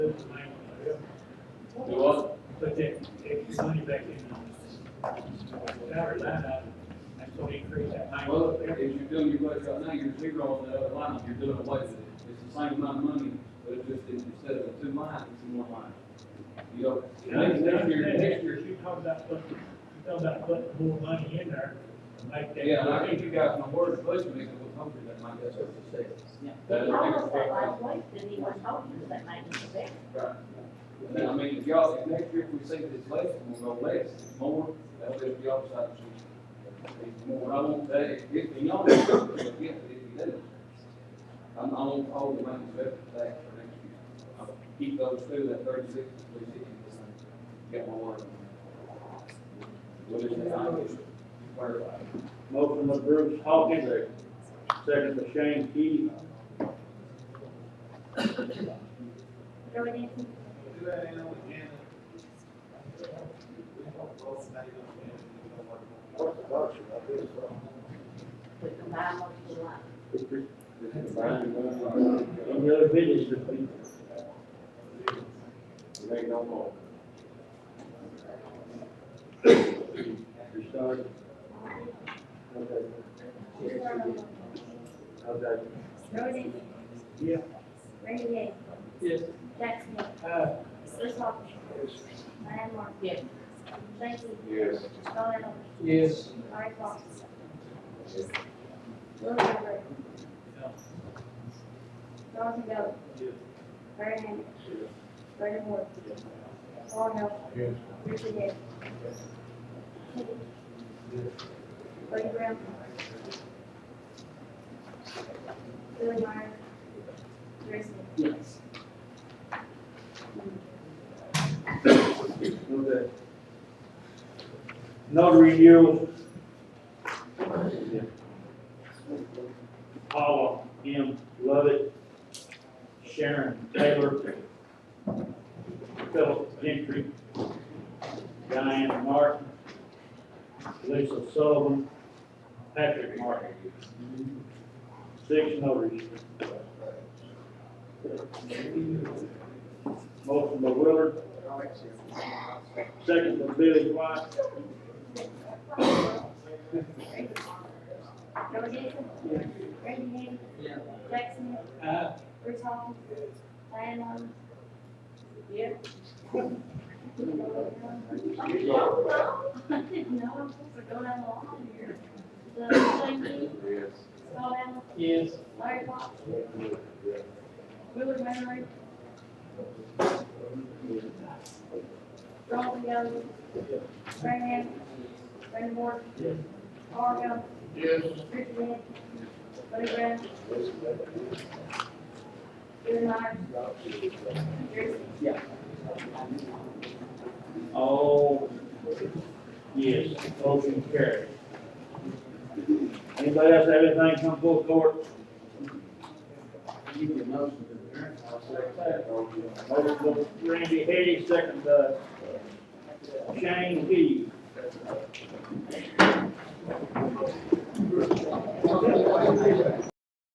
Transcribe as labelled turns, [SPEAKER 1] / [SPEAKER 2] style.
[SPEAKER 1] Do what?
[SPEAKER 2] But they, they can money back in. Without a line item, that's what increase that line.
[SPEAKER 1] Well, if you're doing your budget right now, you're zero on the other line, you're doing away with it. It's the same amount of money, but it's just instead of two lines, it's in one line. You know, next, next year, next year,
[SPEAKER 2] You talk about putting, you talk about putting more money in there to make that.
[SPEAKER 1] yeah, and I think you guys, my word, budget making will come through that, Mike, that's what you said.
[SPEAKER 3] They promised that last week, and he was talking to that man in the back.
[SPEAKER 1] Right. And then, I mean, if y'all, if next year if we see this less, we'll go less, If more, that'll be up to y'all decide to choose. If more, I won't, that, if, if y'all, if you do, if you do. I'm, I won't hold the money back for that for next year. I'll keep those two, that thirty-six, three sixty, get my word. What is that? I'm just clarified.
[SPEAKER 4] Motion by Bruce Hawkins, second by Shane Key.
[SPEAKER 3] Joey Denton,
[SPEAKER 5] What's the motion? I think it's, uh,
[SPEAKER 3] we combined with the line.
[SPEAKER 4] Any other business this week?
[SPEAKER 1] Make no more.
[SPEAKER 4] We started. Okay. Okay.
[SPEAKER 3] Joey Denton.
[SPEAKER 2] Yeah.
[SPEAKER 3] Randy Yeager.
[SPEAKER 2] Yes.
[SPEAKER 3] Jack Smith.
[SPEAKER 2] Uh,
[SPEAKER 3] Bruce Hawkins. Diane Martin. Yes. Shane Key.
[SPEAKER 5] Yes.
[SPEAKER 3] Charlie Allen.
[SPEAKER 2] yes.
[SPEAKER 3] Larry Clark. Willie Roberts.
[SPEAKER 2] No.
[SPEAKER 3] Johnson Gold.
[SPEAKER 2] Yes.
[SPEAKER 3] Larry Hammond. Brandon Moore. Lauren Hill.
[SPEAKER 5] Yes.
[SPEAKER 3] Richard Hill. Buddy Brown. Billy Meyer. Jerry Smith.
[SPEAKER 2] Yes.
[SPEAKER 4] Okay. Notary Hill. Paula M. Lovett, Sharon Taylor, Philip Gentry, Diane Martin, Lisa Sullivan, Patrick Martin. Six notaries. Motion by Willard, Second by Billy White.
[SPEAKER 3] Joe Jason. Randy Hammond. Jack Smith.
[SPEAKER 2] Uh,
[SPEAKER 3] Bruce Hawkins. Diane Martin. Yeah. I didn't know I'm supposed to go down the line here. So, Shane Key.
[SPEAKER 5] Yes.
[SPEAKER 3] Scott Allen.
[SPEAKER 2] yes.
[SPEAKER 3] Larry Fox. Willard Manley. Ronald Young. Brandon Hammond. Brandon Moore. Carl
[SPEAKER 5] Yes.
[SPEAKER 3] Young. Richard Hill. Buddy Brown. Billy Meyer. Jerry Smith.
[SPEAKER 4] All, yes, motion carried. Anybody else have anything come full court? Motion by Randy Hedy, second by Shane Key.